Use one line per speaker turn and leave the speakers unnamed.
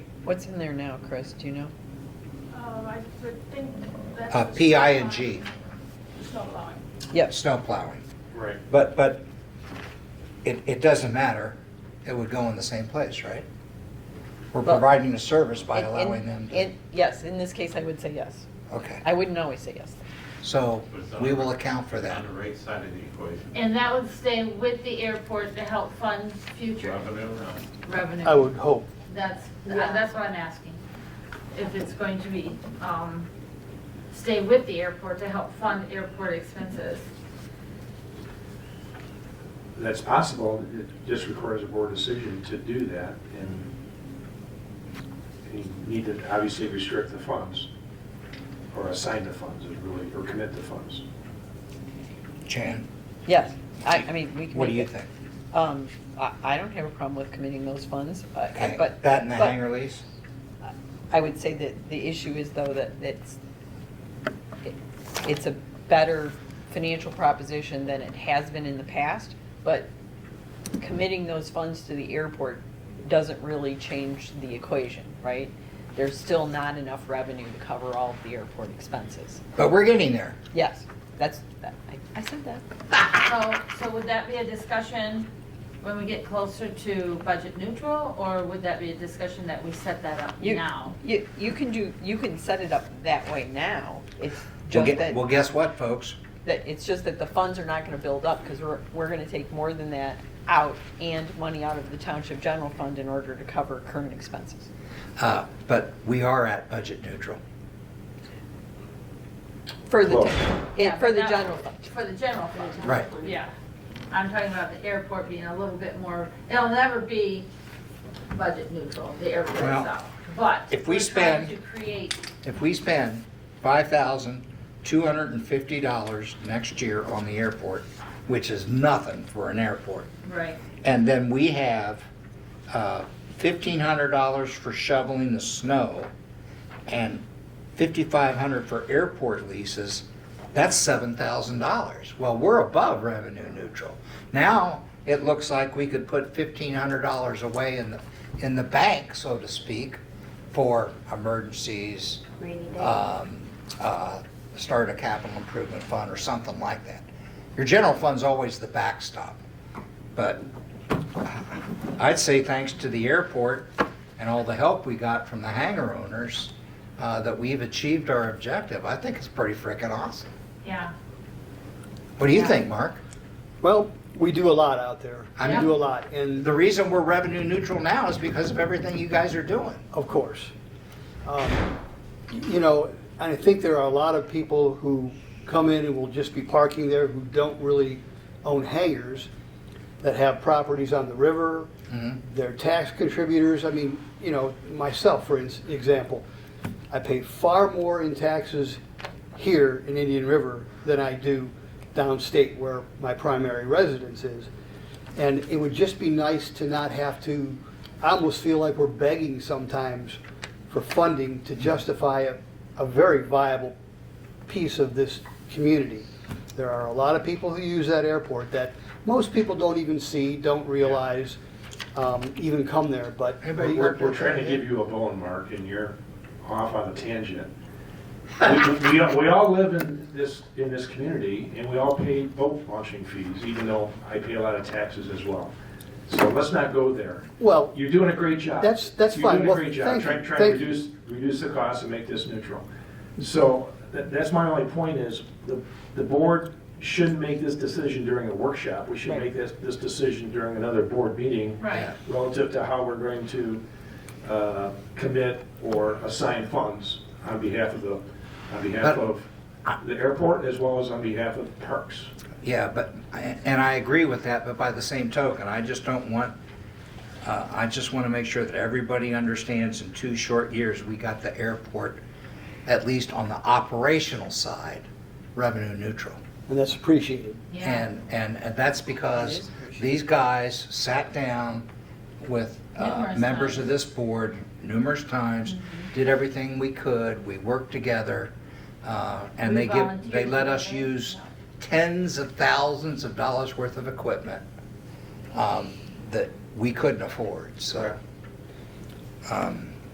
What's in there now, Chris? Do you know?
Um, I would think that's.
Uh, PI and G,
Snow plowing.
Yep.
snow plowing.
Right.
But, but it, it doesn't matter. It would go in the same place, right? We're
Well,
providing a service by
In- in-
allowing them to,
in- Yes, in this case, I would say yes. I
okay.
wouldn't always say yes.
So
But it's on
we
the-
will account for
it's
that.
On the right side of the equation,
And that would stay with the airport to help fund future
revenue or not.
revenue.
I would hope.
That's, uh, that's what I'm asking. If it's going to be, um, stay with the airport to help fund airport expenses.
That's possible, it just requires a board decision to do that, and you need to obviously restrict the funds, or assign the funds, is really, or commit the funds.
Jan,
Yes, I, I mean, we can.
what do
make
you
it-
think?
Um, I, I don't have a problem with committing those funds, I- I-
Okay,
Uh, but.
That and the
but
hangar lease?
I would say that the issue is though that it's, it- it's a better financial proposition than it has been in the past, but committing those funds to the airport doesn't really change the equation, right? There's still not enough revenue to cover all of the airport expenses.
But we're getting there.
Yes, that's, that- I, I said that.
So, so would that be a discussion when we get closer to budget neutral? Or would that be a discussion that we set that up
You-
now?
You, you can do, you can set it up that way now. It's
We'll
just
get-
that,
Well, guess what, folks?
that, it's just that the funds are not gonna build up, because we're, we're gonna take more than that out and money out of the township general fund in order to cover current expenses.
Uh, But we are at budget neutral.
For the,
Well-
and for the general fund.
For the general fund.
Right.
Yeah. I'm talking about the airport being a little bit more, it'll never be budget neutral, the airport
Well,
itself. But
if we
we're trying
spend-
To create
If we spend $5,250 next year on the airport, which is nothing for an airport,
Right,
And then we have uh, $1,500 for shoveling the snow and $5,500 for airport leases. That's $7,000. Well, we're above revenue neutral. Now, it looks like we could put $1,500 away in the, in the bank, so to speak, for emergencies, um, uh, start a capital improvement fund or something like that. Your general fund's always the backstop. But I'd say thanks to the airport and all the help we got from the hangar owners, uh, that we've achieved our objective. I think it's pretty frickin' awesome.
yeah.
What do you think, Mark?
Well, we do a lot out there. We
Yeah.
do a lot, and
The reason we're revenue neutral now is because of everything you guys are doing.
of course. Um, You know, and I think there are a lot of people who come in and will just be parking there who don't really own hangars, that have properties on the river, they're tax contributors. I mean, you know, myself, for ins- example, I pay far more in taxes here in Indian River than I do downstate where my primary residence is. And it would just be nice to not have to, I almost feel like we're begging sometimes for funding to justify a, a very viable piece of this community. There are a lot of people who use that airport that most people don't even see, don't realize, um, even come there, but.
Anybody-
We're, we're trying to give you a bone, Mark, and you're off on a tangent. We- We, we all- we all live in this, in this community, and we all pay boat launching fees, even though I pay a lot of taxes as well. So let's not go there.
Well,
You're doing a great job.
That's- that's fine.
You're doing
Well,
a great job,
thank
trying,
you.
trying to
Thank you.
reduce, reduce the cost and make this neutral. So that, that's my only point is, the, the board shouldn't make this decision during a workshop. We should
Right.
make this, this decision during another board meeting.
Right.
Relative to how we're going to, uh, commit or assign funds on behalf of the, on behalf of the airport as well as on behalf of parks.
Yeah, but, and I agree with that, but by the same token, I just don't want, uh, I just want to make sure that everybody understands in two short years, we got the airport, at least on the operational side, revenue neutral.
and that's appreciated.
Yeah.
And, and and that's because
appreciated.
these guys sat down with uh,
Numerous
members of
times. Mm-hmm.
this board numerous times, did everything we could, we worked together, uh, and
We
they give, they
volunteered
let
for
us
them.
use tens of thousands of dollars worth of equipment um, that we couldn't afford, so. um,